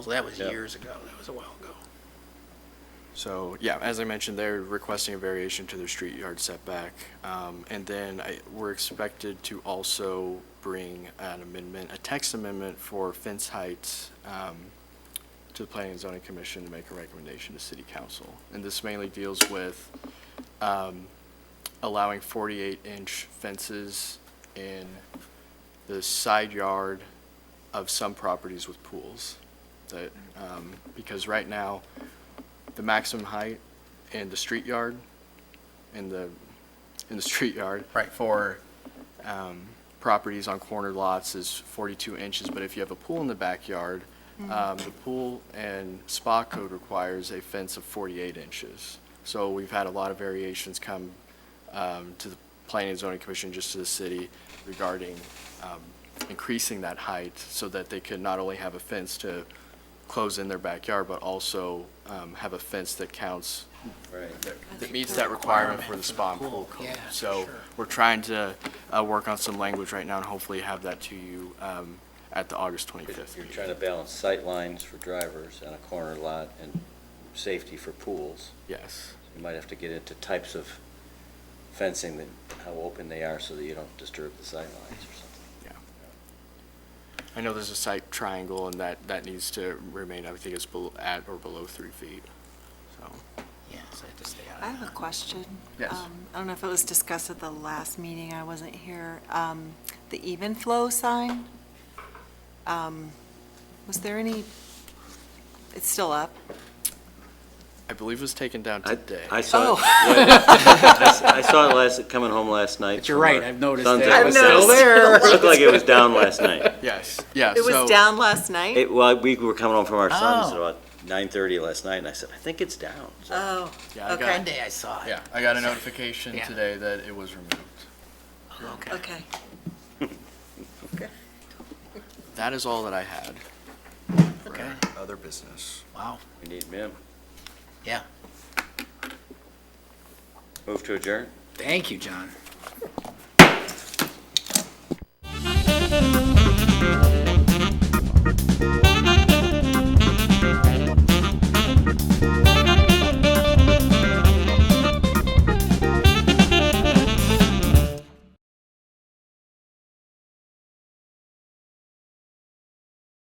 So that was Yeah. years ago, that was a while ago. So, yeah, as I mentioned, they're requesting a variation to their street yard setback. Um, And then I, we're expected to also bring an amendment, a text amendment for fence heights um, to the Planning and Zoning Commission to make a recommendation to City Council. And this mainly deals with um, allowing 48-inch fences in the side yard of some properties with pools. That, um, because right now, the maximum height in the street yard, in the, in the street yard. Right. For, um, properties on corner lots is forty-two inches, but if you have a pool in the backyard, um, the pool and spa code requires a fence of forty-eight inches. So we've had a lot of variations come, um, to the planning and zoning commission, just to the city regarding, um, increasing that height so that they could not only have a fence to close in their backyard, but also, um, have a fence that counts Right. that meets that requirement for the spa and pool code. Yeah, So sure. we're trying to uh, work on some language right now and hopefully have that to you um, at the August 25th You're meeting. trying to balance sight lines for drivers on a corner lot and safety for pools. Yes, You might have to get into types of fencing that, how open they are so that you don't disturb the sight lines or something. yeah. I know there's a site triangle and that, that needs to remain, I think it's bel- at or below three feet, so. Yeah, so I have to stay out I of have a that. question. Yes. Um, I don't know if it was discussed at the last meeting, I wasn't here. Um, The even flow sign, um, was there any, it's still up? I believe it was taken down I- today. I saw, it- Oh. yeah, yeah. I s- I saw it last, coming home last night. But you're from right, our I've noticed son's that. I've episode. noticed it. It Looked like it was down last night. Yes, yeah. It so- was down last night? It, well, we were coming home from our son's at Oh. about nine-thirty last night, and I said, I think it's down. So Oh, Yeah, I okay, got, Monday I saw it. yeah, I got a notification Yeah. today that it was removed. Okay. okay. That is all that I had. for Okay. Other business. Wow, We need Mim. yeah. Move to adjourn? Thank you, John.